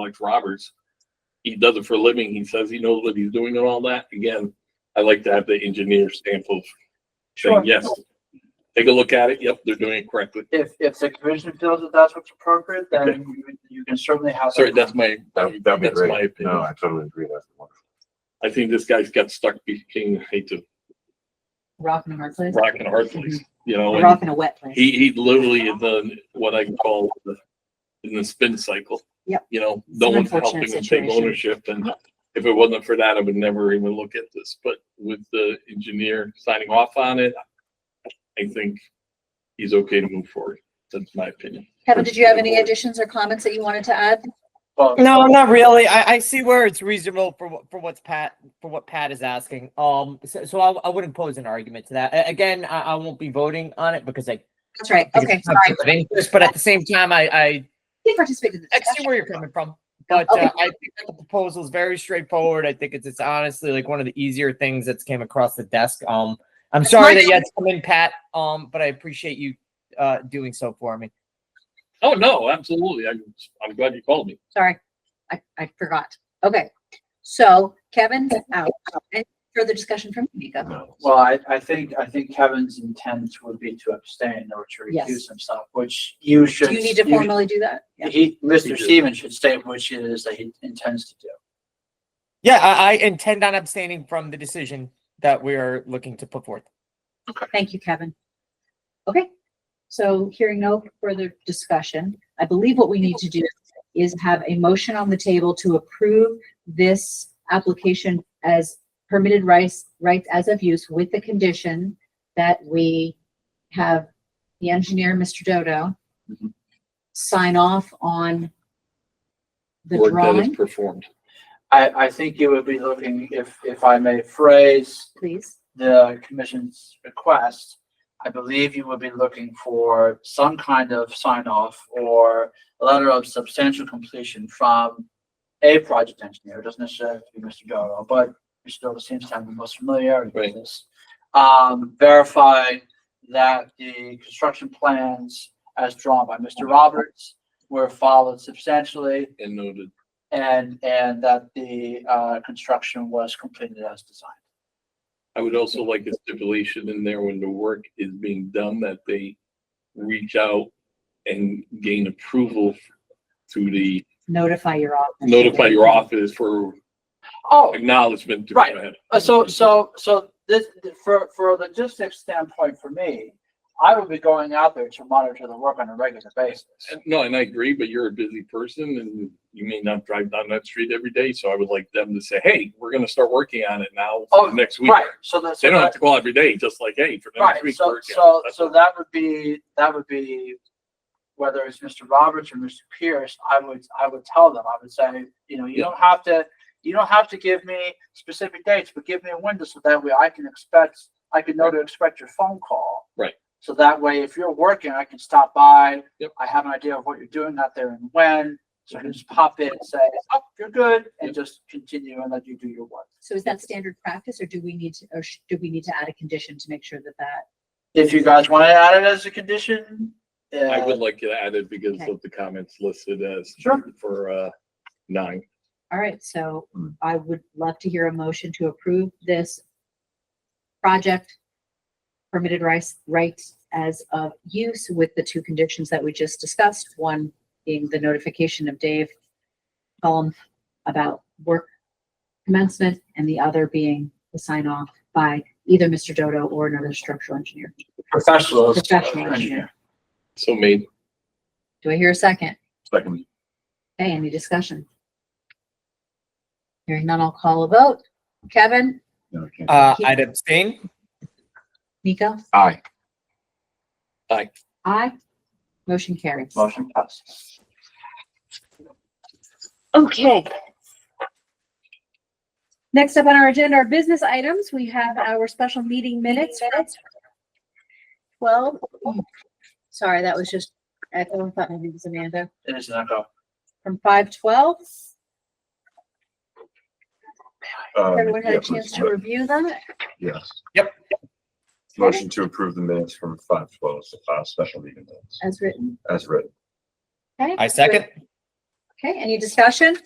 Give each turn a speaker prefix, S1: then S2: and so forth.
S1: Alex Roberts. He does it for a living. He says he knows what he's doing and all that. Again, I like to have the engineer stamp of saying, yes. Take a look at it. Yep, they're doing it correctly.
S2: If, if the commission feels that that's what's appropriate, then you- you can certainly have. that
S1: Sorry, that's my,
S3: That'd, that'd be
S1: that's my
S3: great.
S1: opinion.
S3: No, I totally agree. That's wonderful.
S1: I think this guy's got stuck between, hate to
S4: Rock in a hard place.
S1: rock and a hard place, you know, and
S4: Rock in a wet place.
S1: he, he literally is in what I call the, in the spin cycle.
S4: Yep.
S1: You know, no
S4: It's an
S1: one's
S4: unfortunate
S1: helping him take
S4: situation.
S1: ownership and if it wasn't for that, I would never even look at this, but with the engineer signing off on it, I think he's okay to move forward. That's my opinion.
S4: Kevin, did you have any additions or comments that you wanted to add?
S2: above.
S5: No, not really. I, I see where it's reasonable for what, for what's Pat, for what Pat is asking. Um, so, so I, I wouldn't pose an argument to that. A- Again, I, I won't be voting on it because I.
S4: That's right.
S5: because
S4: Okay,
S5: it's
S4: sorry.
S5: conflict of interest, But at the same time, I, I,
S4: He participated in the
S5: I see
S4: discussion.
S5: where you're coming from. But
S4: Okay.
S5: uh, I think that the proposal is very straightforward. I think it's, it's honestly like one of the easier things that's came across the desk. Um, I'm
S4: That's my
S5: sorry that you had to come in, Pat. Um, but I appreciate you, uh, doing so for me.
S1: Oh, no, absolutely. I'm, I'm glad you called me.
S4: Sorry. I, I forgot. Okay. So Kevin's out. Any further discussion from you, Nico?
S3: No.
S2: Well, I, I think, I think Kevin's intent would be to abstain or to
S4: Yes.
S2: recuse himself, which you should.
S4: Do you need to formally do that? Yeah.
S2: He,
S1: You do.
S2: Mr. Stevens should state which it is that he intends to do.
S5: Yeah, I, I intend on abstaining from the decision that we are looking to put forth.
S4: Thank you, Kevin. Okay. So hearing no further discussion, I believe what we need to do is have a motion on the table to approve this application as permitted rights, rights as of use with the condition that we have the engineer, Mr. Dodo,
S1: Mhm.
S4: sign off on the
S1: Work that is
S4: drawing,
S1: Performed.
S2: I, I think you would be looking, if, if I may phrase
S4: please.
S2: the commission's request, I believe you would be looking for some kind of sign off or a letter of substantial completion from a project engineer, it doesn't necessarily have to be Mr. Dodo, but Mr. Dodo seems to have the most familiarity with
S1: Right.
S2: this. Um, verifying that the construction plans as drawn by Mr. Roberts were followed substantially
S1: And noted.
S2: and, and that the, uh, construction was completed as designed.
S1: I would also like a stipulation in there when the work is being done that they reach out and gain approval to the,
S4: Notify your office.
S1: notify your office for
S2: Oh,
S1: acknowledgement. to go
S2: Right.
S1: ahead.
S2: Uh, so, so, so this, for, for a logistics standpoint for me, I would be going out there to monitor the work on a regular basis.
S1: And- No, and I agree, but you're a busy person and you may not drive down that street every day. So I would like them to say, hey, we're going to start working on it now for
S2: Oh,
S1: next week.
S2: Right, so that's.
S1: They don't have to call every day, just like, hey, for the next
S2: Right,
S1: week.
S2: so,
S1: we're working on
S2: so,
S1: it." That's
S2: so
S1: all.
S2: that would be, that would be, whether it's Mr. Roberts or Mr. Pierce, I would, I would tell them, I would say, you know, you
S1: Yeah.
S2: don't have to, you don't have to give me specific dates, but give me a window so that way I can expect, I can know to expect your phone call.
S1: Right.
S2: So that way, if you're working, I can stop by.
S1: Yep. Mm-hmm.
S2: I have an idea of what you're doing out there and when, so I can just pop in and say, oh, you're good, and
S1: Yep.
S2: just continue and let you do your work.
S4: So is that standard practice or do we need to, or sh- do we need to add a condition to make sure that that?
S2: If you guys want to add it as a condition,
S1: I
S2: uh,
S1: would like it added because
S4: Okay.
S1: of the comments listed as
S2: Sure.
S1: for uh, nine.
S4: All right, so I would love to hear a motion to approve this project permitted rights, rights as of use with the two conditions that we just discussed. One being the notification of Dave Cullum about work commencement and the other being the sign off by either Mr. Dodo or another structural engineer.
S2: professionals.
S4: Professional engineer.
S1: So made.
S4: Do I hear a second?
S3: Second.
S4: Okay, any discussion? Hearing none, I'll call a vote. Kevin,
S3: No, I can't.
S5: Uh, I'd abstain.
S4: Nico,
S3: Aye.
S4: aye. Motion carries.
S2: Motion passes.
S4: Okay. Next up on our agenda are business items. We have our special meeting minutes. Well, sorry, that was just, I thought thought maybe it was Amanda
S2: It is an echo.
S4: from five twelve.
S3: Um,
S4: Everyone had
S3: yeah,
S4: a chance
S3: please.
S4: to review them.
S3: Yes.
S5: Yep.
S3: Motion to approve the minutes from five twelve, uh, special meeting minutes
S4: As written.
S3: as written.
S4: Okay?
S5: I second.
S6: Okay, any discussion?